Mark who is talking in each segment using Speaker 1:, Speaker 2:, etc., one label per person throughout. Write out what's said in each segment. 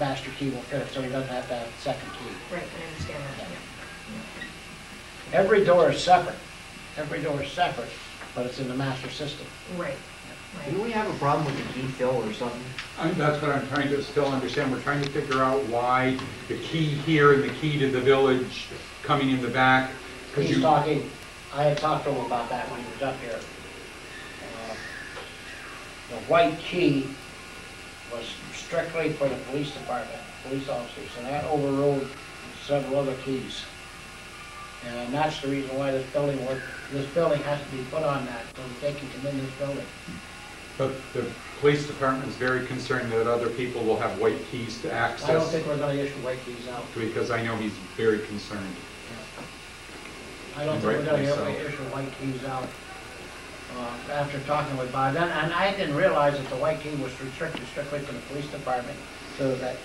Speaker 1: master key will fit it, so he doesn't have to have a second key.
Speaker 2: Right, I understand that, yeah.
Speaker 1: Every door is separate, every door is separate, but it's in the master system.
Speaker 2: Right,
Speaker 3: Do
Speaker 2: right.
Speaker 3: we have a problem with the key fill or something?
Speaker 4: And that's what I'm trying to still understand, we're trying to figure out why the key here and the key to the village coming in the back, because
Speaker 1: He's
Speaker 4: you,
Speaker 1: talking, I had talked to him about that when he was up here. Uh, The white key was strictly for the police department, police officers, and that overrode several other keys. And that's the reason why this building was, this building has to be put on that, so that they can come in this building.
Speaker 4: but the police department is very concerned that other people will have white keys to access.
Speaker 1: I don't think we're gonna issue white keys out.
Speaker 4: Because I know he's very concerned.
Speaker 1: I don't think we're gonna
Speaker 4: Rightly so.
Speaker 1: ever issue white keys out, uh, after talking with Bob. And, and I didn't realize that the white key was restricted strictly to the police department, so that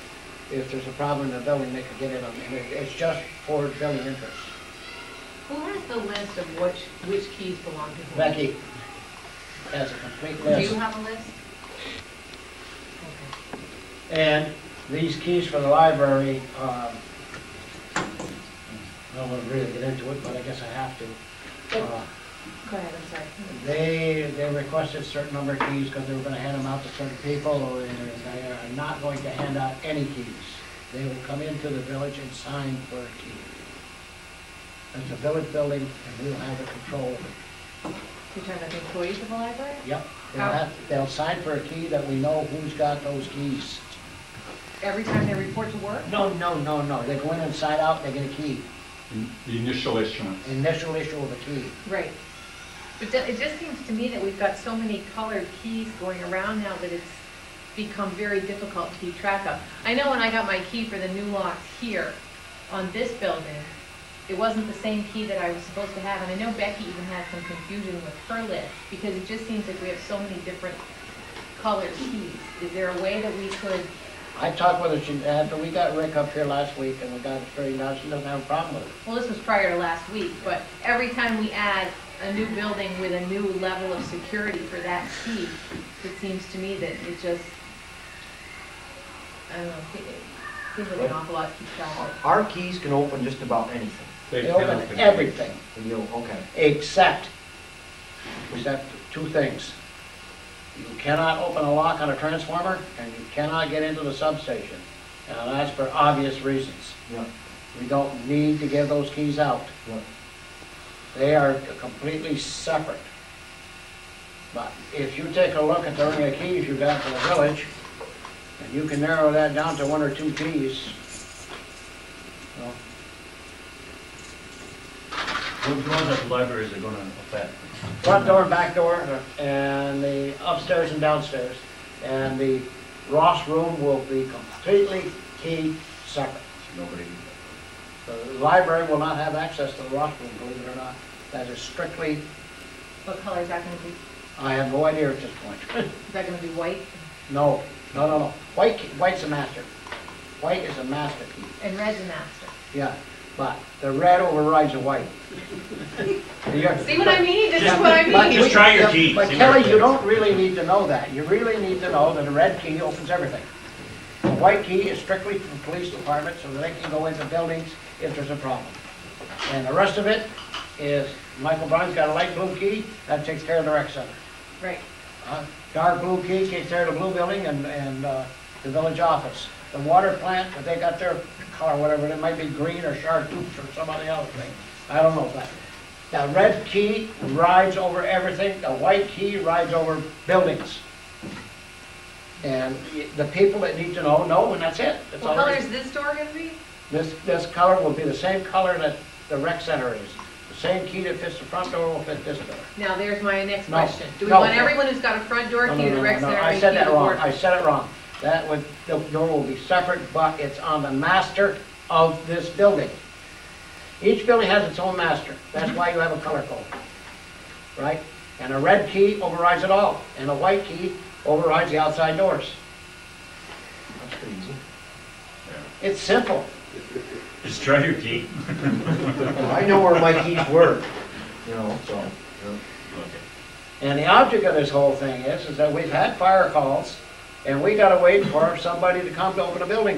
Speaker 1: if there's a problem in the building, they could get it on, and it- it's just for building interests.
Speaker 2: Who has the list of which, which keys belong to whom?
Speaker 1: Becky has a complete
Speaker 2: Do you
Speaker 1: list.
Speaker 2: have a list?
Speaker 1: And these keys for the library, um, I don't wanna really get into it, but I guess I have to. Uh,
Speaker 2: Okay. Go ahead, I'm sorry.
Speaker 1: They, they requested certain number of keys because they were gonna hand them out to certain people, and they are not going to hand out any keys. They will come into the village and sign for a key. It's a village building, and we'll have the control.
Speaker 2: You're talking about the employees of the library?
Speaker 1: Yep, they'll have, they'll sign for a key that we know who's got those keys.
Speaker 2: Every time they report to work?
Speaker 1: No, no, no, no, they go in and sign out, they get a key,
Speaker 4: In- The initial issuance.
Speaker 1: initial issue of a key.
Speaker 2: Right. But that- it just seems to me that we've got so many colored keys going around now that it's become very difficult to keep track of. I know when I got my key for the new locks here on this building, it wasn't the same key that I was supposed to have. And I know Becky even had some confusion with her list because it just seems like we have so many different colored keys. Is there a way that we could,
Speaker 1: I talked with her, she- after we got Rick up here last week, and we got it straightened out, she doesn't have a problem with it.
Speaker 2: well, this was prior to last week, but every time we add a new building with a new level of security for that key, it seems to me that it just, I don't know, it it seems like an awful lot to keep track of.
Speaker 3: Our keys can open just about anything.
Speaker 1: They
Speaker 4: cannot
Speaker 1: open
Speaker 4: control.
Speaker 1: everything.
Speaker 3: And you'll, okay.
Speaker 1: except, except two things. You cannot open a lock on a transformer, and you cannot get into the substation. Now, that's for obvious reasons.
Speaker 3: Yeah,
Speaker 1: We don't need to give those keys out.
Speaker 3: yeah.
Speaker 1: They are completely separate. But if you take a look at the ring of keys you got for the village, and you can narrow that down to one or two keys, well,
Speaker 5: Those ones at the libraries are gonna affect.
Speaker 1: front door and back door, and the upstairs and downstairs. And the Ross room will be completely key separate.
Speaker 5: Nobody.
Speaker 1: The library will not have access to the Ross room, believe it or not. That is strictly,
Speaker 2: What color is that gonna be?
Speaker 1: I have no idea at this point.
Speaker 2: Is that gonna be white?
Speaker 1: No, no, no, no. White, key- white's a master. White is a master key,
Speaker 2: And red's a master.
Speaker 1: yeah. But the red overrides the white.
Speaker 2: See what I mean? This is what I
Speaker 1: But
Speaker 2: mean.
Speaker 5: Just try your
Speaker 1: we-
Speaker 5: keys,
Speaker 1: But
Speaker 5: see what
Speaker 1: Kelly, you
Speaker 5: happens.
Speaker 1: don't really need to know that. You really need to know that a red key opens everything. A white key is strictly for the police department, so that they can go into buildings if there's a problem. And the rest of it is, Michael Brown's got a light blue key, that takes care of the rec center.
Speaker 2: Right,
Speaker 1: Uh, Dark blue key takes care of the blue building and, and uh, the village office. The water plant, if they got their color, whatever, it might be green or chartreuse or somebody else thing. I don't know, but the red key rides over everything, the white key rides over buildings. And the people that need to know, know, and that's it. That's
Speaker 2: what
Speaker 1: all
Speaker 2: color
Speaker 1: there is.
Speaker 2: is this door gonna be?
Speaker 1: This, this color will be the same color that the rec center is. The same key that fits the front door will fit this door.
Speaker 2: Now, there's my next
Speaker 1: No,
Speaker 2: question. Do we
Speaker 1: no.
Speaker 2: want everyone who's got a front door
Speaker 1: No,
Speaker 2: key
Speaker 1: no,
Speaker 2: to the
Speaker 1: no,
Speaker 2: rec
Speaker 1: no, no,
Speaker 2: center
Speaker 1: I
Speaker 2: and
Speaker 1: said
Speaker 2: key
Speaker 1: that
Speaker 2: to
Speaker 1: wrong,
Speaker 2: board?
Speaker 1: I said it wrong. That would, the door will be separate, but it's on the master of this building. Each building has its own master, that's why you have a color code, right? And a red key overrides it all, and a white key overrides the outside doors.
Speaker 3: That's pretty easy.
Speaker 1: It's simple.
Speaker 5: Just try your key.
Speaker 3: I know where my keys were, you know, so.
Speaker 1: And the object of this whole thing is, is that we've had fire calls, and we gotta wait for somebody to come to open a building